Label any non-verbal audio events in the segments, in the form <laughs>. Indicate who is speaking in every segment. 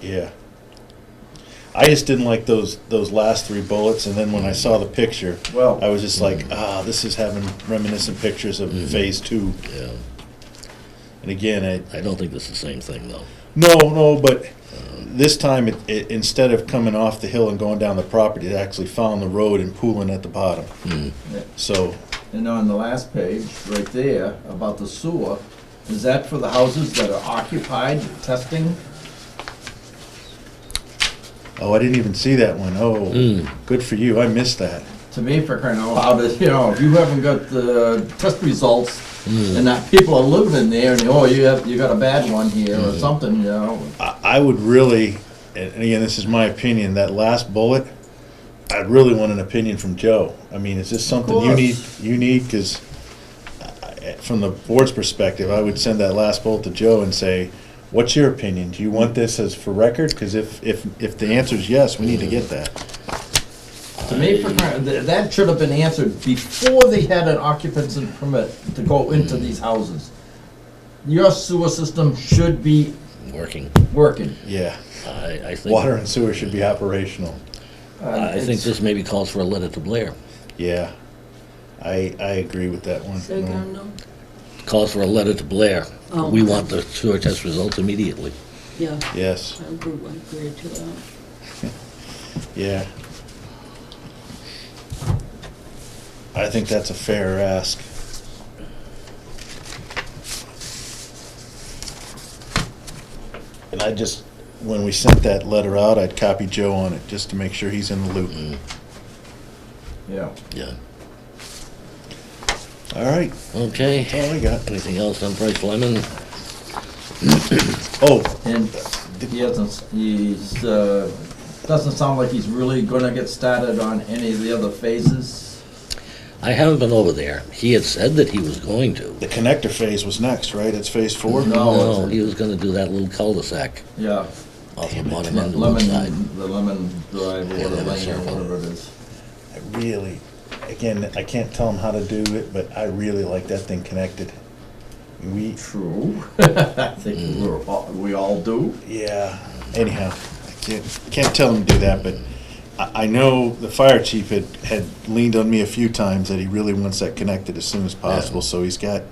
Speaker 1: Yeah. I just didn't like those those last three bullets, and then when I saw the picture,
Speaker 2: Well-
Speaker 1: I was just like, ah, this is having reminiscent pictures of Phase Two.
Speaker 3: Yeah,
Speaker 1: And again, I,
Speaker 3: I don't think it's the same thing though.
Speaker 1: No, no, but this time, it, it, instead of coming off the hill and going down the property, it actually found the road and pooling at the bottom. So,
Speaker 2: And on the last page, right there, about the sewer, is that for the houses that are occupied, testing?
Speaker 1: oh, I didn't even see that one. Oh, good for you. I missed that.
Speaker 2: To me, for crying out loud, <laughs> is, you know, if you haven't got the test results,
Speaker 3: Hmm.
Speaker 2: and that people are living in there, and, oh, you have, you got a bad one here,
Speaker 3: Hmm.
Speaker 2: or something, you know,
Speaker 1: I, I would really, and and again, this is my opinion, that last bullet, I'd really want an opinion from Joe. I mean, is this something you need,
Speaker 2: course.
Speaker 1: you need? Because from the board's perspective, I would send that last bullet to Joe and say, what's your opinion? Do you want this as for record? Because if, if, if the answer is yes, we need to get that.
Speaker 2: To me, for crying- th- that should have been answered before they had an occupancy permit to go into
Speaker 3: Hmm.
Speaker 2: these houses. Your sewer system should be
Speaker 3: Working,
Speaker 2: working.
Speaker 1: Yeah,
Speaker 3: I, I think.
Speaker 1: water and sewer should be operational.
Speaker 3: I think
Speaker 2: It's-
Speaker 3: this maybe calls for a letter to Blair.
Speaker 1: Yeah, I, I agree with that one.
Speaker 4: Say again, no?
Speaker 3: Calls for a letter to Blair.
Speaker 4: Oh.
Speaker 3: We want the sewer test results immediately.
Speaker 4: Yeah,
Speaker 1: Yes,
Speaker 4: I agree, I agree to uh, that.
Speaker 1: yeah. I think that's a fair ask. And I just, when we sent that letter out, I'd copy Joe on it, just to make sure he's in the loop.
Speaker 2: Yeah.
Speaker 3: Yeah.
Speaker 1: All right,
Speaker 3: Okay.
Speaker 1: that's all I got.
Speaker 3: Anything else on Price Lemon?
Speaker 1: Oh,
Speaker 2: And he hasn't, he's, uh, doesn't sound like he's really gonna get started on any of the other phases.
Speaker 3: I haven't been over there. He had said that he was going to.
Speaker 1: the connector phase was next, right? It's phase four?
Speaker 3: Mm-hmm.
Speaker 2: No, it's-
Speaker 3: he was gonna do that little cul-de-sac
Speaker 2: Yeah,
Speaker 3: off of
Speaker 1: Damn it.
Speaker 3: Monument side.
Speaker 2: lemon, the lemon drive or
Speaker 3: Yeah,
Speaker 2: the
Speaker 3: lemon
Speaker 2: lane or
Speaker 3: circle.
Speaker 2: whatever it is.
Speaker 1: I really, again, I can't tell them how to do it, but I really like that thing connected. We,
Speaker 2: True. <laughs> I think
Speaker 3: Mm.
Speaker 2: we're, all- we all do.
Speaker 1: yeah, anyhow, I can't, can't tell them to do that, but I, I know the fire chief had, had leaned on me a few times that he really wants that connected as soon as possible, so he's got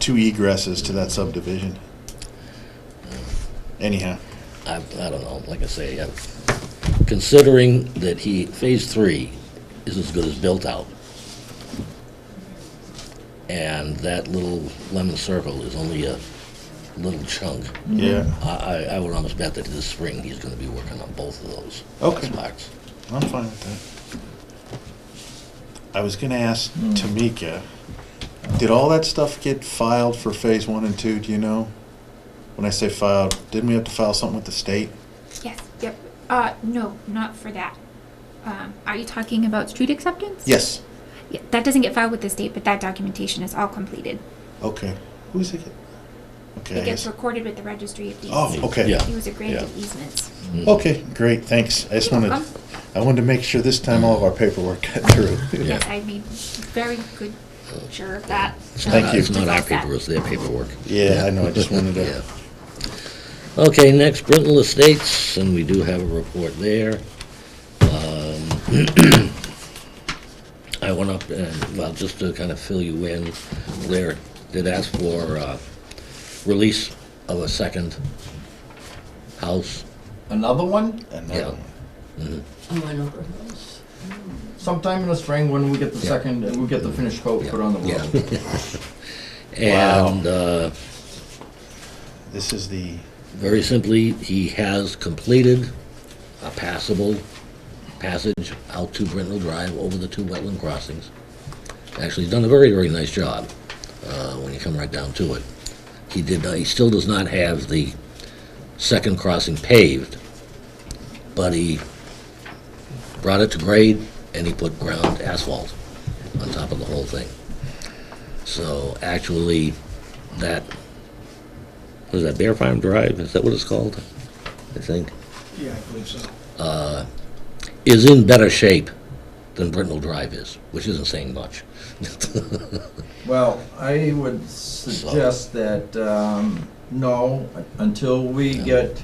Speaker 1: two egresses to that subdivision. Anyhow,
Speaker 3: I, I don't know, like I say, I'm considering that he, phase three is as good as built out. And that little lemon circle is only a little chunk.
Speaker 1: yeah,
Speaker 3: I, I, I would almost bet that this spring he's gonna be working on both of those
Speaker 1: Okay.
Speaker 3: spots.
Speaker 1: I'm fine with that. I was gonna ask Tamika, did all that stuff get filed for phase one and two, do you know? When I say filed, didn't we have to file something with the state?
Speaker 5: Yes, yep. Uh, no, not for that. Um, are you talking about street acceptance?
Speaker 1: Yes.
Speaker 5: Yeah, that doesn't get filed with the state, but that documentation is all completed.
Speaker 1: Okay. Who's it? get- Okay. I
Speaker 5: It gets
Speaker 1: guess-
Speaker 5: recorded with the registry of deeds.
Speaker 1: Oh, okay.
Speaker 3: Yeah.
Speaker 5: He was a granted
Speaker 3: Yeah.
Speaker 5: easements.
Speaker 1: Okay, great, thanks. I just
Speaker 5: You're
Speaker 1: wanted,
Speaker 5: welcome.
Speaker 1: I wanted to make sure this time all of our paperwork got through.
Speaker 3: <laughs> Yeah.
Speaker 5: Yes, I made very good sure of that.
Speaker 1: Thank you.
Speaker 3: It's not our
Speaker 5: Just like that.
Speaker 3: paper, it's their paperwork.
Speaker 1: Yeah, I know, I just wanted
Speaker 3: <laughs>
Speaker 1: to,
Speaker 3: Yeah. Okay, next, Brittle Estates, and we do have a report there. Um, <clears throat> I went up and, well, just to kind of fill you in, Blair did ask for uh, release of a second house.
Speaker 2: Another one?
Speaker 1: another one.
Speaker 4: Oh, I know her house.
Speaker 2: Sometime in the spring when we get the
Speaker 3: Yeah.
Speaker 2: second, we get the finished coat put on the
Speaker 3: Yeah.
Speaker 2: road.
Speaker 3: <laughs> And uh,
Speaker 1: This is the,
Speaker 3: very simply, he has completed a passable passage out to Brittle Drive over the two wetland crossings. Actually, he's done a very, very nice job uh, when you come right down to it. He did, not- he still does not have the second crossing paved, but he brought it to grade and he put ground asphalt on top of the whole thing. So actually, that, what is that, Bear Farm Drive, is that what it's called? I think Uh,
Speaker 6: Yeah, I believe so.
Speaker 3: is in better shape than Brittle Drive is, which isn't saying much.
Speaker 2: Well, I would suggest that, um, no, until we get